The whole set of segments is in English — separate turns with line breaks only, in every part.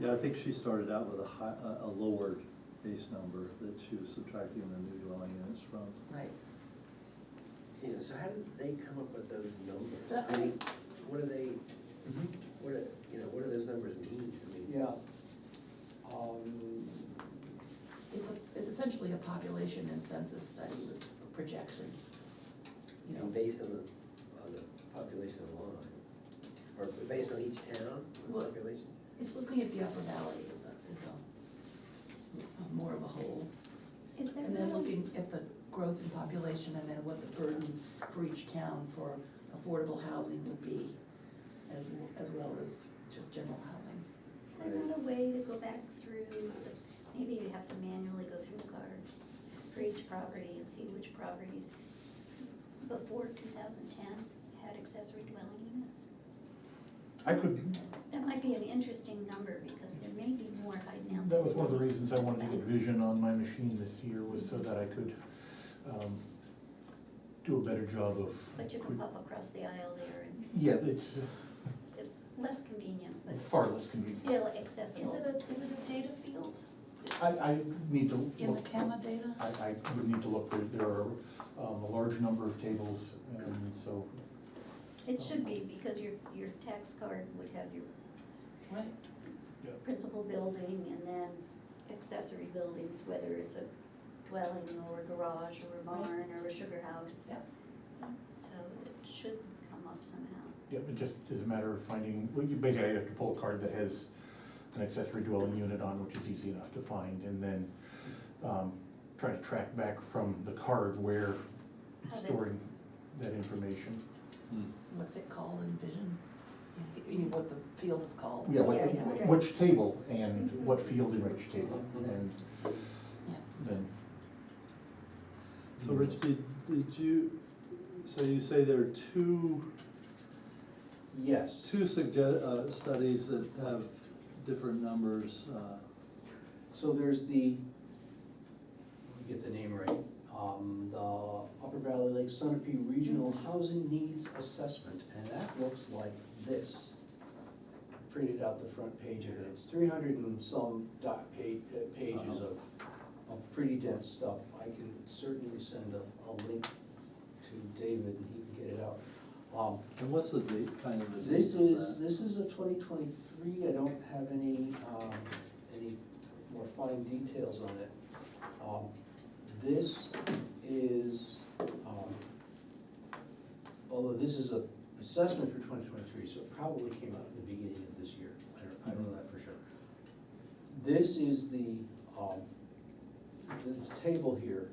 Yeah, I think she started out with a high, a, a lowered base number that she was subtracting the new dwelling units from.
Right.
Yeah, so how did they come up with those numbers?
That-
I mean, what do they, what do, you know, what do those numbers mean? I mean,
Yeah. Um,
It's a, it's essentially a population and census study with a projection. You
And
know,
based on the, on the population of Long Island, or based on each town,
Well-
population?
it's looking at the upper valley as a, as a, a more of a whole.
Is there
And then
no,
looking at the growth in population and then what the burden for each town for affordable housing would be as, w- as well as just general housing.
is there not a way to go back through, the- maybe you'd have to manually go through the cards for each property and see which properties before two thousand ten had accessory dwelling units?
I could,
That might be an interesting number because there may be more right now.
that was one of the reasons I wanted to get vision on my machine this year, was so that I could, um, do a better job of.
But you can pop across the aisle there and
Yeah, it's
it- less convenient, but
far less convenient.
still accessible.
Is it a, is it a data field
I, I need to look.
in the CAMA data?
I, I would need to look, there, there are, um, a large number of tables, and so,
It should be, because your, your tax card would have your
Right.
principal building and then accessory buildings, whether it's a dwelling or a garage or a barn or a sugar house.
Yep.
So it should come up somehow.
yeah, it just is a matter of finding, well, you basically have to pull a card that has an accessory dwelling unit on, which is easy enough to find, and then, um, try to track back from the card where it's
How that's-
storing that information.
What's it called in vision? You mean what the field is called?
Yeah, what,
Yeah, yeah. Mm-hmm.
which table and what field in which table, and
Yeah.
then,
So Rich, did, did you, so you say there are two,
Yes.
two sugge- uh, studies that have different numbers, uh,
So there's the, let me get the name right, um, the Upper Valley Lake Sunapee Regional Housing Needs Assessment, and that looks like this. Printed out the front page of it, it's three hundred and some dot pa- uh, pages of, of pretty dense stuff. I can certainly send a, a link to David and he can get it out. Um,
and what's the date, kind of the date?
this
of that?
is, this is a twenty twenty-three, I don't have any, um, any more fine details on it. Um, This is, um, although this is a assessment for twenty twenty-three, so it probably came out in the beginning of this year, I don't, I don't know that for sure. This is the, um, this table here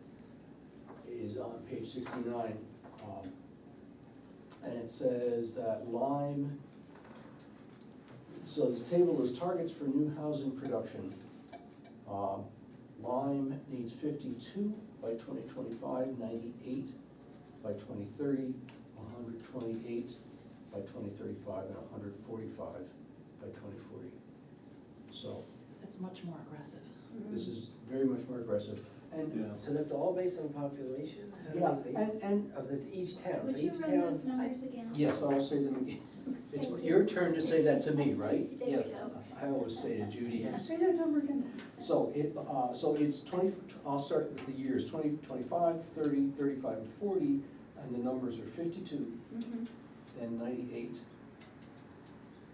is on page sixty-nine, um, and it says that Lime, so this table is targets for new housing production. Um, Lime needs fifty-two by 2025, 98 by twenty thirty, hundred twenty-eight by twenty thirty-five, and hundred forty-five by twenty forty. So
It's much more aggressive.
this is very much more aggressive, and
Yeah.
So that's all based on population? How do
Yeah,
they base-
and, and,
Of the, each town, so
Would you
each
run
town,
those numbers again?
yes, I will say them again. It's
Thank you.
your turn to say that to me, right?
There you
Yes,
go.
I always say to Judy,
Yes.
say that number again. So it, uh, so it's twenty, I'll start with the years, twenty, twenty-five, thirty, thirty-five, and forty, and the numbers are fifty-two,
Mhm.
then ninety-eight,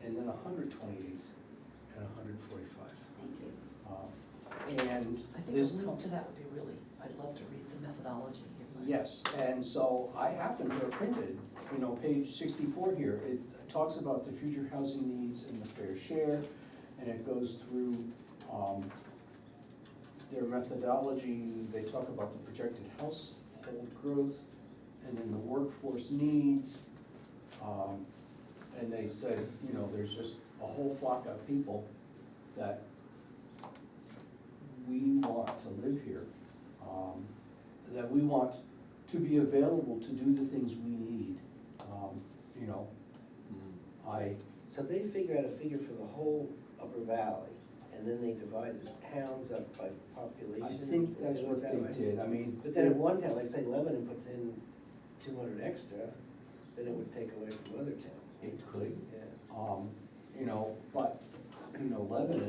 and then hundred twenty-eight, and hundred forty-five. Um,
Thank you.
And
I think a
this.
link
com-
to that would be really, I'd love to read the methodology here. Liz.
Yes, and so I have them here printed, you know, page sixty-four here, it talks about the future housing needs and the fair share, and it goes through, um, their methodology, they talk about the projected household growth, and then the workforce needs. Um, and they said, you know, there's just a whole flock of people that we want to live here, um, that we want to be available to do the things we need. Um, You know, I,
so they figure out a figure for the whole Upper Valley, and then they divide the towns up by population?
I think
and
that's
do it
what
that way?
they did, I mean.
But then in one town, like say Lebanon puts in two hundred extra, then it would take away from other towns,
It could,
yeah.
um, you know, but, you know, Lebanon